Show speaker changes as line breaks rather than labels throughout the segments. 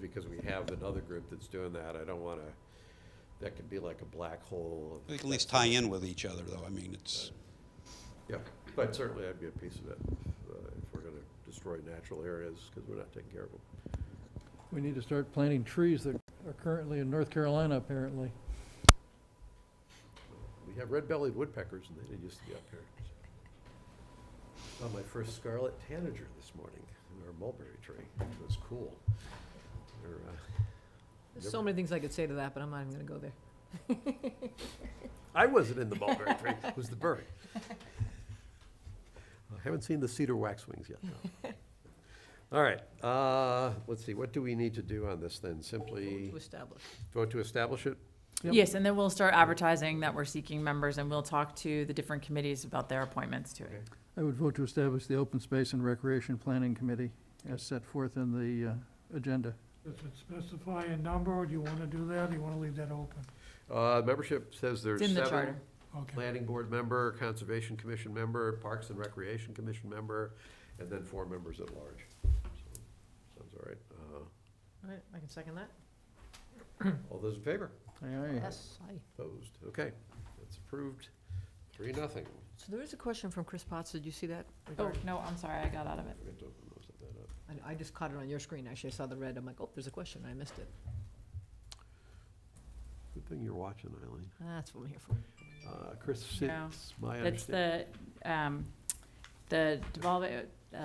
because we have another group that's doing that, I don't wanna, that could be like a black hole.
We can at least tie in with each other, though. I mean, it's,
Yeah, but certainly I'd be a piece of it, uh, if we're gonna destroy natural areas, because we're not taking care of them.
We need to start planting trees that are currently in North Carolina, apparently.
We have red-bellied woodpeckers, and they didn't used to be up here. Saw my first scarlet tanager this morning, in our mulberry tree, it was cool. They're, uh,
There's so many things I could say to that, but I'm not even gonna go there.
I wasn't in the mulberry tree, it was the bird. I haven't seen the cedar waxwings yet, though. All right, uh, let's see, what do we need to do on this then? Simply
To establish.
vote to establish it?
Yep.
Yes, and then we'll start advertising that we're seeking members, and we'll talk to the different committees about their appointments to
Okay.
it.
I would vote to establish the Open Space and Recreation Planning Committee as set forth in the uh, agenda.
Does it specify a number, or do you want to do that, or you want to leave that open?
Uh, membership says there's
It's in the
seven.
charter.
Okay,
Planning Board member, Conservation Commission member, Parks and Recreation Commission member, and then four members at large. So, Sounds all right. Uh,
All right, I can second that?
All those in favor?
Aye, aye.
Aye.
Opposed? Okay, that's approved. Three, nothing.
So there is a question from Chris Potts, did you see that?
Oh,
regarding-
no, I'm sorry, I got out of it.
Forgot to open those, set that up.
I, I just caught it on your screen, actually, I saw the red, I'm like, oh, there's a question, I missed it.
Good thing you're watching, Eileen.
That's what I'm here for.
Uh, Chris,
No.
it's my
That's
understanding.
the, um, the devolve, uh,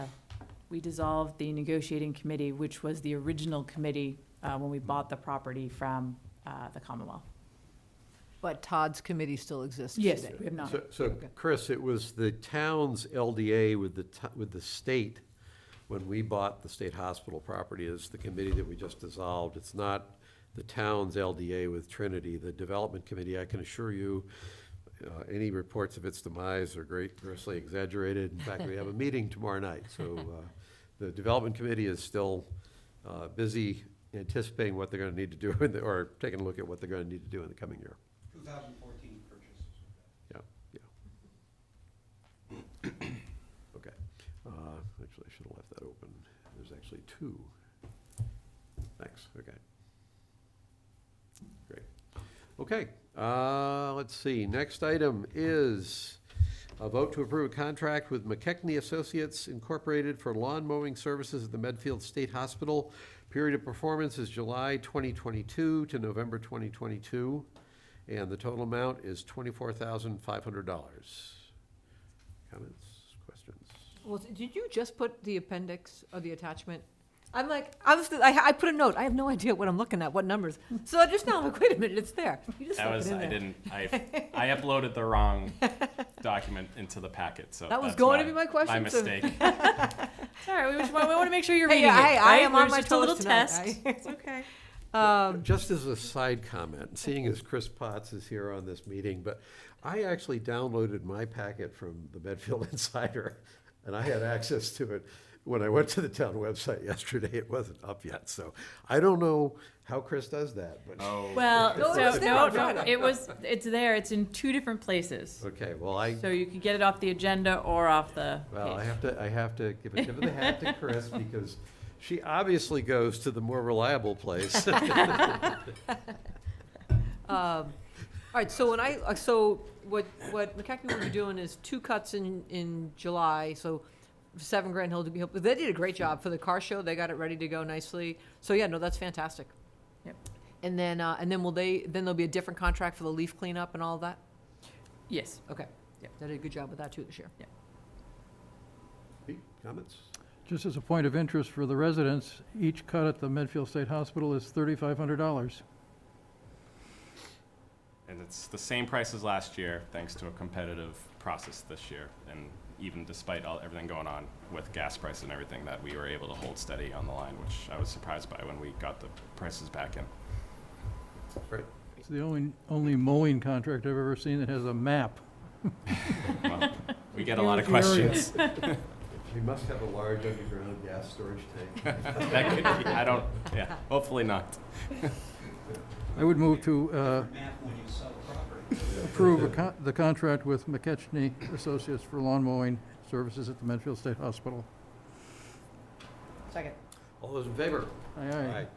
we dissolved the negotiating committee, which was the original committee, uh, when we bought the property from, uh, the Commonwealth.
But Todd's committee still exists today?
Yes, we have not.
So- So,
Okay.
Chris, it was the town's LDA with the, to- with the state, when we bought the state hospital property, is the committee that we just dissolved. It's not the town's LDA with Trinity, the development committee, I can assure you, uh, any reports of its demise are great, grossly exaggerated. In fact, we have a meeting tomorrow night, so uh, the development committee is still uh, busy anticipating what they're gonna need to do, in the- or taking a look at what they're gonna need to do in the coming year.
2014 purchase.
Yeah, yeah. Okay, uh, actually, I should have left that open. There's actually two. Thanks, okay. Great. Okay, uh, let's see, next item is a vote to approve a contract with McKechnie Associates Incorporated for lawn mowing services at the Medfield State Hospital. Period of performance is July twenty twenty-two to November twenty twenty-two. And the total amount is twenty-four thousand five hundred dollars. Comments, questions?
Well, did you just put the appendix or the attachment? I'm like, I was, I, I put a note, I have no idea what I'm looking at, what numbers. So I just now, I'm like, wait a minute, it's there. You just
That
stuck it
was
in
I
there.
didn't I I uploaded the wrong document into the packet. So
That was
that's
going to be my
My
question, so-
mistake.
Sorry, we just want, we want to make sure you're
Hey,
reading it,
hey, I
right?
am on
There's
my
just a little
toes tonight.
test.
I-
It's okay.
Um,
Just as a side comment, seeing as Chris Potts is here on this meeting, but I actually downloaded my packet from the Medfield Insider, and I had access to it. When I went to the town website yesterday, it wasn't up yet, so I don't know how Chris does that, but,
Oh,
Well,
No, it
so,
was there
no,
on
no,
Friday.
it was, it's there, it's in two different places.
okay, well, I,
So you could get it off the agenda or off the
Well, I
page.
have to, I have to give a tip of the hat to Chris because she obviously goes to the more reliable place.
Um, All right, so when I, uh, so what, what McCackey will be doing is two cuts in, in July, so seven Grand Hill to be, they did a great job for the car show, they got it ready to go nicely. So yeah, no, that's fantastic.
Yep.
And then, uh, and then will they, then there'll be a different contract for the leaf cleanup and all that?
Yes.
Okay.
Yep.
They did a good job with that too this year.
Pete, Comments?
Just as a point of interest for the residents, each cut at the Medfield State Hospital is $3,500.
and it's the same price as last year, thanks to a competitive process this year, and even despite all everything going on with gas prices and everything, that we were able to hold steady on the line, which I was surprised by when we got the prices back in.
Right.
It's the only, only mowing contract I've ever seen that has a map.
Well, we get a lot of
Huge area.
questions.
She must have a large underground gas storage tank.
that could be, I don't. Yeah, hopefully not.
I would move to uh,
Map when you sell property.
approve a con- the contract with McKechnie Associates for lawn mowing services at the Medfield State Hospital.
Second.
All those in favor?
Aye, aye.